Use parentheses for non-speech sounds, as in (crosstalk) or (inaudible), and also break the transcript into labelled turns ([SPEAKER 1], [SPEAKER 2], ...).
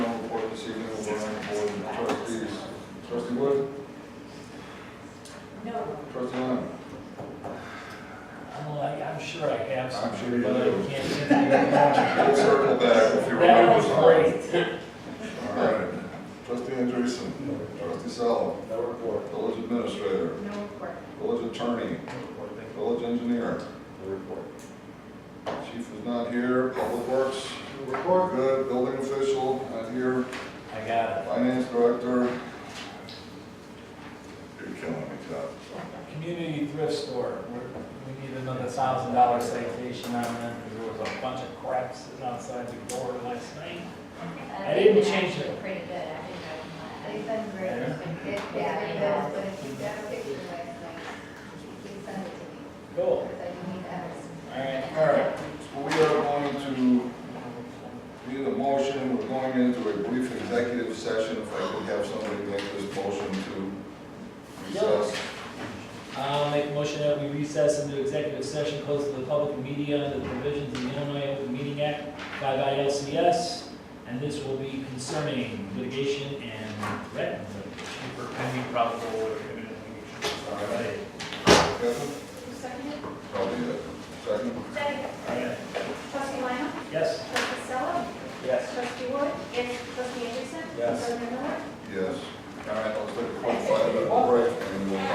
[SPEAKER 1] Wood,
[SPEAKER 2] No.
[SPEAKER 1] trustee Lemon.
[SPEAKER 3] I'm like, I'm sure I have some,
[SPEAKER 1] I'm sure you
[SPEAKER 3] but I
[SPEAKER 1] do.
[SPEAKER 3] can't think of
[SPEAKER 1] We'll circle back (laughs) if you
[SPEAKER 3] it.
[SPEAKER 1] remember.
[SPEAKER 3] That was great.
[SPEAKER 1] All right. Trustee Andreessen. Trustee Sel.
[SPEAKER 4] No report.
[SPEAKER 1] Village administrator.
[SPEAKER 2] No report.
[SPEAKER 1] Village attorney.
[SPEAKER 4] No report. Thank
[SPEAKER 1] Village engineer.
[SPEAKER 4] you. No report.
[SPEAKER 1] Chief is not here. Public works.
[SPEAKER 4] No report.
[SPEAKER 1] Good. Building official, not here.
[SPEAKER 3] I got
[SPEAKER 1] Finance director. You're killing me, Todd.
[SPEAKER 3] it. Community thrift store, We're- we need another thousand dollar citation on that, because there was a bunch of crap sitting outside the door last night. I didn't change it.
[SPEAKER 5] Pretty good, I think I can,
[SPEAKER 2] They've been great.
[SPEAKER 3] Yeah.
[SPEAKER 2] It's been
[SPEAKER 5] Yeah.
[SPEAKER 2] good, but if you've got a picture last night, please send it to me,
[SPEAKER 3] Cool,
[SPEAKER 2] because I do need that.
[SPEAKER 3] all
[SPEAKER 1] All
[SPEAKER 3] right.
[SPEAKER 1] right, so we are going to, need a motion, we're going into a brief executive session, if I could have somebody make this motion to recess.
[SPEAKER 3] I'll make a motion that we recess into executive session, close to the public and media under the provisions of the Illinois Open Meeting Act, five ILCS, and this will be concerning litigation and threat litigation.
[SPEAKER 4] For pending probable or imminent litigation.
[SPEAKER 1] All right. Kevin?
[SPEAKER 2] Who seconded?
[SPEAKER 1] Probably it. Second?
[SPEAKER 2] Second.
[SPEAKER 3] Okay.
[SPEAKER 2] Trustee Lina?
[SPEAKER 3] Yes?
[SPEAKER 2] Trustee Sella?
[SPEAKER 4] Yes.
[SPEAKER 2] Trustee Wood? Yes. Trustee Anderson?
[SPEAKER 4] Yes.
[SPEAKER 2] President Miller?
[SPEAKER 1] Yes.